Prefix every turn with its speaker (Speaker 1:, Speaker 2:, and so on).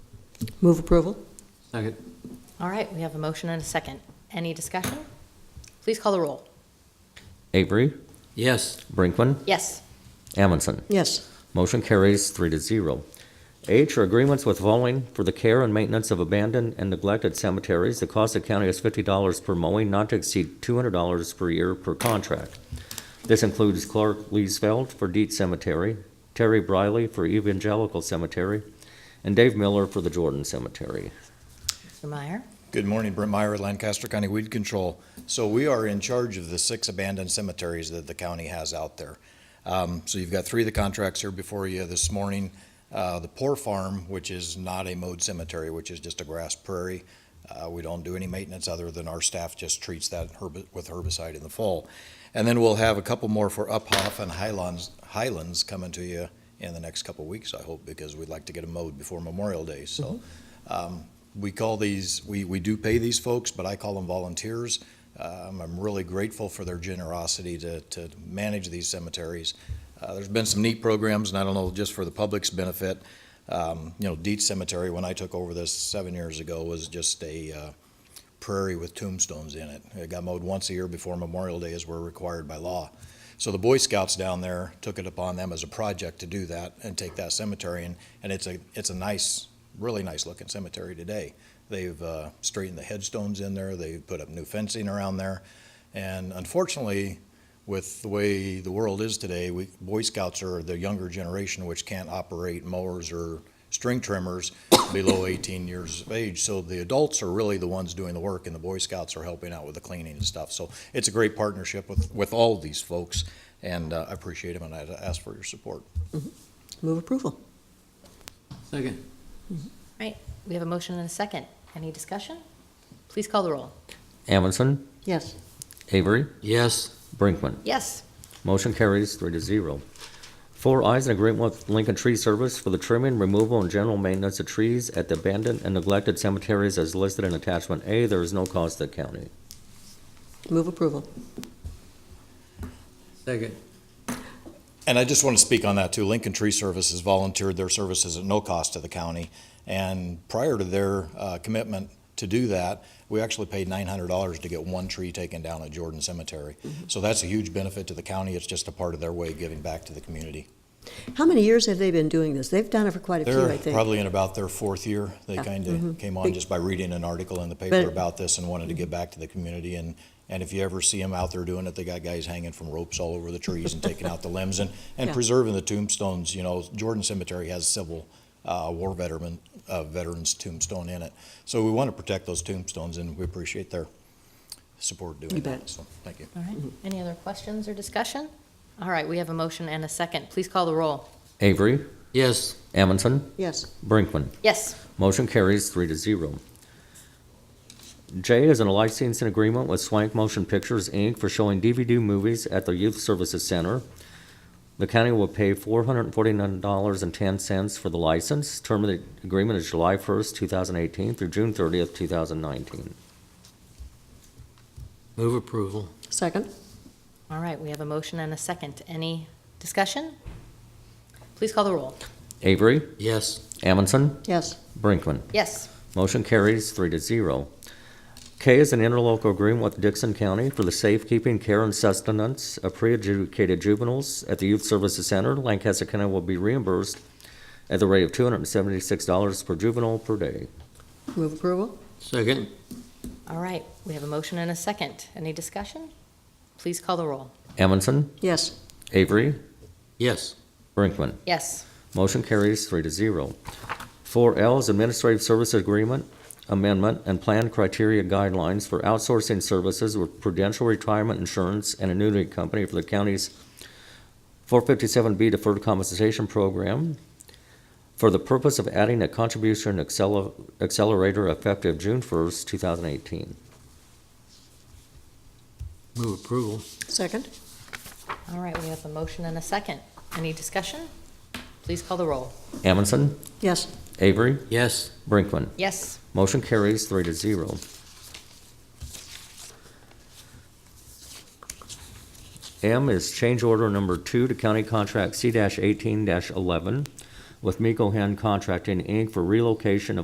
Speaker 1: Move approval?
Speaker 2: Second.
Speaker 3: All right, we have a motion and a second. Any discussion? Please call the roll.
Speaker 4: Avery,
Speaker 2: Yes.
Speaker 4: Brinkman,
Speaker 3: Yes.
Speaker 4: Amundson.
Speaker 1: Yes.
Speaker 4: Motion carries three to zero. H are agreements with Voling for the care and maintenance of abandoned and neglected cemeteries. The cost of county is fifty dollars per mowing, not to exceed two hundred dollars per year per contract. This includes Clark Leesfeld for Deet Cemetery, Terry Briley for Evangelical Cemetery, and Dave Miller for the Jordan Cemetery.
Speaker 3: Mr. Meyer?
Speaker 5: Good morning, Brent Meyer, with Lancaster County Weed Control. So we are in charge of the six abandoned cemeteries that the county has out there. Um, So you've got three of the contracts here before you this morning. Uh, The Poor Farm, which is not a mowed cemetery, which is just a grass prairie. Uh, We don't do any maintenance other than our staff just treats that herb- with herbicide in the fall. And then we'll have a couple more for Uphoff and Highlands, Highlands coming to you in the next couple weeks, I hope, because we'd like to get them mowed before Memorial Day. So um, we call these, we, we do pay these folks, but I call them volunteers. Um, I'm really grateful for their generosity to, to manage these cemeteries. Uh, there's been some neat programs, and I don't know, just for the public's benefit, um, you know, Deet Cemetery, when I took over this seven years ago, was just a, uh, prairie with tombstones in it. It got mowed once a year before Memorial Day as we're required by law. So the Boy Scouts down there took it upon them as a project to do that and take that cemetery and, and it's a, it's a nice, really nice looking cemetery today. They've uh, straightened the headstones in there, they've put up new fencing around there. And unfortunately, with the way the world is today, we, Boy Scouts are the younger generation which can't operate mowers or string trimmers below 18 years of age. So the adults are really the ones doing the work, and the Boy Scouts are helping out with the cleaning and stuff. So it's a great partnership with, with all of these folks, and uh, I appreciate them, and I ask for your support.
Speaker 1: Move approval?
Speaker 2: Second.
Speaker 3: Right, we have a motion and a second. Any discussion? Please call the roll.
Speaker 4: Amundson,
Speaker 1: Yes.
Speaker 4: Avery,
Speaker 2: Yes.
Speaker 4: Brinkman.
Speaker 3: Yes.
Speaker 4: Motion carries three to zero. Four eyes in agreement with Lincoln Tree Service for the trimming, removal, and general maintenance of trees at the abandoned and neglected cemeteries as listed in attachment A. There is no cost to the county.
Speaker 1: Move approval?
Speaker 2: Second.
Speaker 5: And I just want to speak on that too. Lincoln Tree Services volunteered their services at no cost to the county. And prior to their uh, commitment to do that, we actually paid nine hundred dollars to get one tree taken down at Jordan Cemetery. So that's a huge benefit to the county. It's just a part of their way of giving back to the community.
Speaker 1: How many years have they been doing this? They've done it for quite a few, I
Speaker 5: They're
Speaker 1: think.
Speaker 5: probably in about their fourth year. They
Speaker 1: Yeah. Mm-hmm.
Speaker 5: kind of came on
Speaker 1: Big-
Speaker 5: just by reading an article in the paper
Speaker 1: But- Mm-hmm.
Speaker 5: about this and wanted to give back to the community. And, and if you ever see them out there doing it, they got guys hanging from ropes all over the trees and taking out the limbs and, and
Speaker 1: Yeah.
Speaker 5: preserving the tombstones. You know, Jordan Cemetery has civil uh, war veteran, uh, veterans tombstone in it. So we want to protect those tombstones and we appreciate their support doing
Speaker 1: You
Speaker 5: that.
Speaker 1: bet.
Speaker 5: So, thank you.
Speaker 3: All right, any other questions or discussion? All right, we have a motion and a second. Please call the roll.
Speaker 4: Avery,
Speaker 2: Yes.
Speaker 4: Amundson,
Speaker 1: Yes.
Speaker 4: Brinkman.
Speaker 3: Yes.
Speaker 4: Motion carries three to zero. J is in a licensing agreement with Swank Motion Pictures, Inc. for showing DVD movies at the Youth Services Center. The county will pay four hundred and forty-nine dollars and ten cents for the license. Term of the agreement is July first, two thousand eighteen through June thirtieth, two thousand nineteen.
Speaker 2: Move approval.
Speaker 1: Second?
Speaker 3: All right, we have a motion and a second. Any discussion? Please call the roll.
Speaker 4: Avery,
Speaker 2: Yes.
Speaker 4: Amundson,
Speaker 1: Yes.
Speaker 4: Brinkman.
Speaker 3: Yes.
Speaker 4: Motion carries three to zero. K is an interlocal agreement with Dixon County for the safekeeping, care, and sustenance of pre-adjudicated juveniles at the Youth Services Center. Lancaster County will be reimbursed at the rate of two hundred and seventy-six dollars per juvenile per day.
Speaker 1: Move approval?
Speaker 2: Second.
Speaker 3: All right, we have a motion and a second. Any discussion? Please call the roll.
Speaker 4: Amundson,
Speaker 1: Yes.
Speaker 4: Avery,
Speaker 2: Yes.
Speaker 4: Brinkman.
Speaker 3: Yes.
Speaker 4: Motion carries three to zero. Four L is Administrative Service Agreement Amendment and Plan Criteria Guidelines for Outsourcing Services with Prudential Retirement Insurance and Annuity Company for the county's 457B Deferred Compensation Program for the purpose of adding a contribution accel- accelerator effective June 1st, 2018.
Speaker 2: Move approval.
Speaker 1: Second?
Speaker 3: All right, we have a motion and a second. Any discussion? Please call the roll.
Speaker 4: Amundson,
Speaker 1: Yes.
Speaker 4: Avery,
Speaker 2: Yes.
Speaker 4: Brinkman.
Speaker 3: Yes.
Speaker 4: Motion carries three to zero. M is change order number two to county contract C eighteen eleven with Miko Hand Contracting, Inc. for relocation of